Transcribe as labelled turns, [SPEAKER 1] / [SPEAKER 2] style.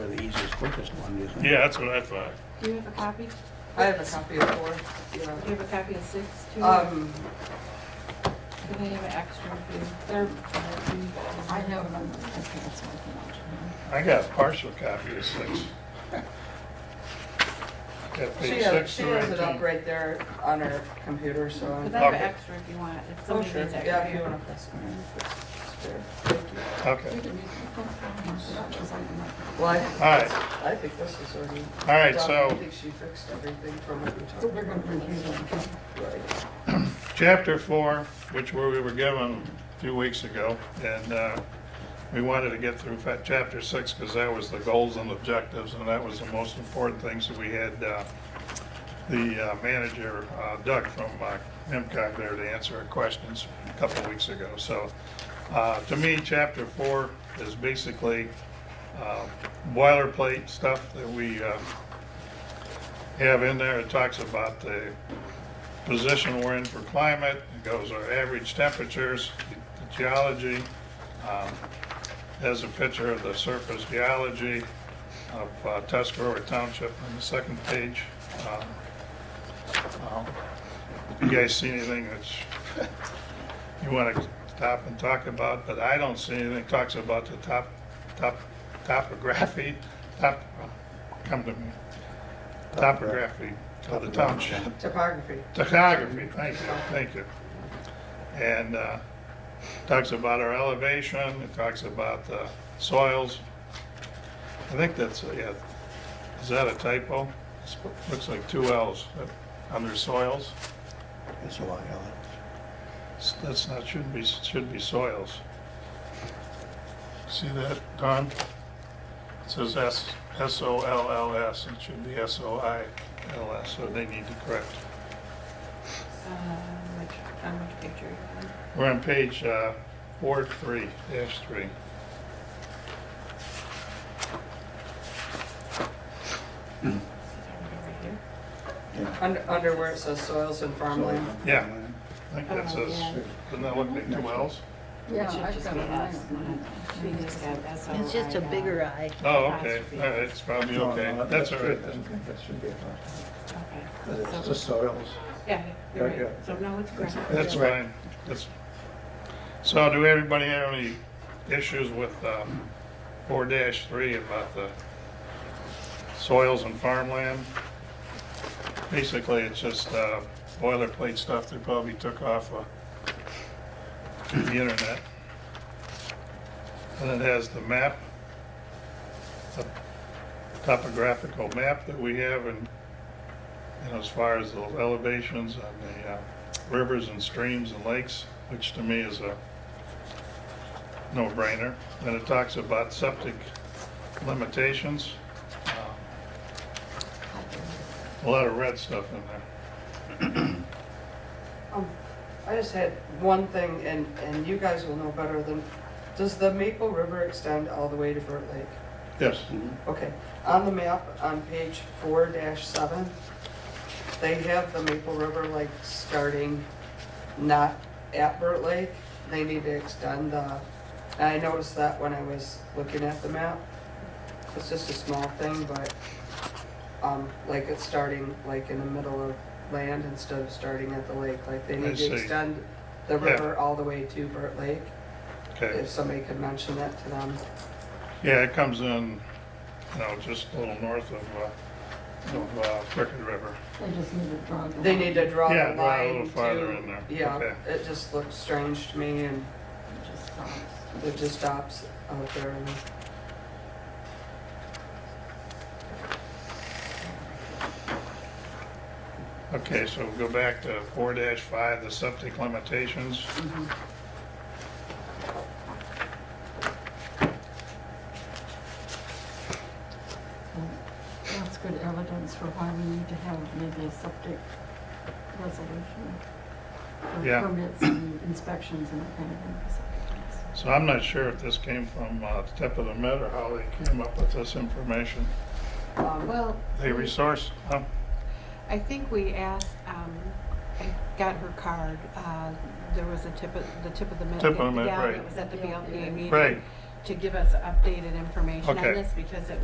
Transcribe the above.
[SPEAKER 1] purchased one, didn't they?
[SPEAKER 2] Yeah, that's what I thought.
[SPEAKER 3] Do you have a copy?
[SPEAKER 4] I have a copy of four.
[SPEAKER 3] Do you have a copy of six? too?
[SPEAKER 4] Um,
[SPEAKER 3] Do they have an extra for you? They're.
[SPEAKER 5] I have another, okay, that's what I
[SPEAKER 2] I got a partial copy of six. Got
[SPEAKER 4] she
[SPEAKER 2] page
[SPEAKER 4] has,
[SPEAKER 2] six
[SPEAKER 4] she
[SPEAKER 2] through
[SPEAKER 4] has it up
[SPEAKER 2] 18.
[SPEAKER 4] right there on her computer, so.
[SPEAKER 3] Because I have
[SPEAKER 4] I'm-
[SPEAKER 3] an
[SPEAKER 2] Okay.
[SPEAKER 3] extra if you want, if
[SPEAKER 4] Oh,
[SPEAKER 3] somebody
[SPEAKER 4] sure,
[SPEAKER 3] needs
[SPEAKER 4] yeah, if you
[SPEAKER 3] extra.
[SPEAKER 4] wanna press it. it's there.
[SPEAKER 2] Okay,
[SPEAKER 5] can read that. Because I didn't like it.
[SPEAKER 4] Well,
[SPEAKER 2] all
[SPEAKER 4] I,
[SPEAKER 2] right,
[SPEAKER 4] I think this is already.
[SPEAKER 2] all right,
[SPEAKER 4] done. I
[SPEAKER 2] so
[SPEAKER 4] think she fixed everything from what we talked
[SPEAKER 5] So we're gonna
[SPEAKER 4] about.
[SPEAKER 5] review them.
[SPEAKER 4] Right.
[SPEAKER 2] chapter four, which where we were given a few weeks ago, and uh, we wanted to get through fa- chapter six because that was the goals and objectives, and that was the most important things that we had uh, the uh, manager, uh, Doug from uh, MCOG there to answer our questions a couple of weeks ago. So uh, to me, chapter four is basically uh, boilerplate stuff that we uh, have in there. It talks about the position we're in for climate, it goes our average temperatures, the geology, um, has a picture of the surface geology of uh, Tuscarora Township on the second page. Um, um, if You guys see anything that you want to stop and talk about, but I don't see anything, talks about the top, top, topography, top, come to me, topography of the township.
[SPEAKER 4] Topography.
[SPEAKER 2] Topography, thank you, thank you. And uh, talks about our elevation, it talks about the soils. I think that's, uh, yeah, is that a typo? It's- Looks like two L's uh, under soils.
[SPEAKER 1] That's a lot, Ellen.
[SPEAKER 2] S- That's not, should be, should be soils. See that, Don? It says S, S-O-L-L-S, it should be S-O-I-L-S, so they need to correct.
[SPEAKER 3] Uh, which, on which picture? you want?
[SPEAKER 2] We're on page uh, Ward 3, dash 3.
[SPEAKER 3] Right here.
[SPEAKER 1] Yeah.
[SPEAKER 4] Under, under where it says soils and farmland.
[SPEAKER 2] Yeah. I think that
[SPEAKER 3] Oh,
[SPEAKER 2] says,
[SPEAKER 3] yeah.
[SPEAKER 2] doesn't that look like two L's?
[SPEAKER 5] Yeah,
[SPEAKER 3] It should
[SPEAKER 5] I've
[SPEAKER 3] just
[SPEAKER 5] got
[SPEAKER 3] be
[SPEAKER 5] it.
[SPEAKER 3] us. She just got S O
[SPEAKER 6] It's just a
[SPEAKER 3] I L.
[SPEAKER 6] bigger eye.
[SPEAKER 2] Oh, okay, all right, it's probably okay, that's all right then.
[SPEAKER 1] That should be a lot,
[SPEAKER 3] Okay.
[SPEAKER 1] 'cause it's
[SPEAKER 3] So-
[SPEAKER 1] the soils.
[SPEAKER 3] Yeah, you're
[SPEAKER 1] Yeah,
[SPEAKER 3] right.
[SPEAKER 1] yeah.
[SPEAKER 3] So now it's correct.
[SPEAKER 2] That's
[SPEAKER 3] Yeah.
[SPEAKER 2] fine, that's, so do everybody have any issues with um, 4 dash 3 about the soils and farmland? Basically, it's just uh, boilerplate stuff they probably took off of the internet. And it has the map, the topographical map that we have and, you know, as far as the elevations on the uh, rivers and streams and lakes, which to me is a no-brainer. And it talks about septic limitations. Um, A lot of red stuff in there.
[SPEAKER 4] Um, I just had one thing, and, and you guys will know better than, does the Maple River extend all the way to Burt Lake?
[SPEAKER 2] Yes,
[SPEAKER 4] Okay, on the map, on page four dash seven, they have the Maple River like starting not at Burt Lake. They need to extend the, and I noticed that when I was looking at the map. It's just a small thing, but, um, like it's starting like in the middle of land instead of starting at the lake. Like they
[SPEAKER 2] I
[SPEAKER 4] need
[SPEAKER 2] see.
[SPEAKER 4] to extend the
[SPEAKER 2] Yeah.
[SPEAKER 4] river all the way to Burt Lake.
[SPEAKER 2] okay.
[SPEAKER 4] If somebody could mention that to them.
[SPEAKER 2] Yeah, it comes in, you know, just a little north of, uh, of uh, Crooked River.
[SPEAKER 5] They just need to draw. the
[SPEAKER 4] They
[SPEAKER 5] line.
[SPEAKER 4] need to draw the
[SPEAKER 2] Yeah,
[SPEAKER 4] line to.
[SPEAKER 2] draw a little farther in there. Okay.
[SPEAKER 4] Yeah, it just looks strange to me and
[SPEAKER 5] It just stops.
[SPEAKER 4] it just stops out there and
[SPEAKER 2] Okay, so we'll go back to four five, the septic limitations.
[SPEAKER 5] Mm-hmm. That's good evidence for why we need to have maybe a septic resolution. for
[SPEAKER 2] Yeah.
[SPEAKER 5] Permits and inspections and that kind of thing. for septic tanks.
[SPEAKER 2] So I'm not sure if this came from uh, tip of the Met or how they came up with this information.
[SPEAKER 4] um,
[SPEAKER 3] Well.
[SPEAKER 2] They resourced, huh?
[SPEAKER 3] I think we asked, um, I got her card, uh, there was a tip of, the tip of the.
[SPEAKER 2] Tip of the Met,
[SPEAKER 3] Yeah,
[SPEAKER 2] right.
[SPEAKER 3] It was at the BLPA meeting.
[SPEAKER 2] Right.
[SPEAKER 3] To give us updated information on
[SPEAKER 2] Okay.
[SPEAKER 3] this because it